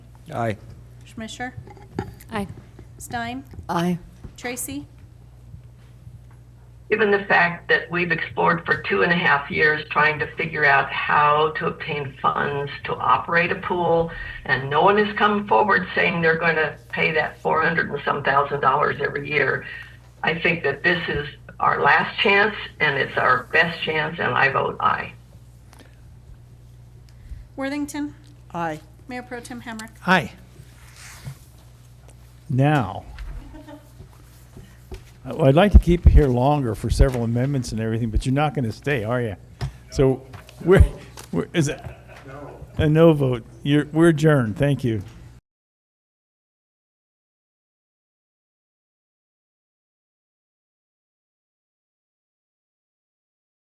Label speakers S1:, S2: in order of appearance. S1: Aye.
S2: Schmisher,
S3: Aye.
S2: Stein,
S3: Aye.
S2: Tracy,
S4: Given the fact that we've explored for two and a half years trying to figure out how to obtain funds to operate a pool, and no one has come forward saying they're going to pay that 400 and some thousand dollars every year, I think that this is our last chance and it's our best chance, and I vote aye.
S2: Worthington,
S5: Aye.
S2: Mayor Pro Tem Hamrick.
S6: Aye. Now, I- I'd like to keep you here longer for several amendments and everything, but you're not going to stay, are you? So we're, we're- is it? No. A no vote. You're, we're adjourned. Thank you.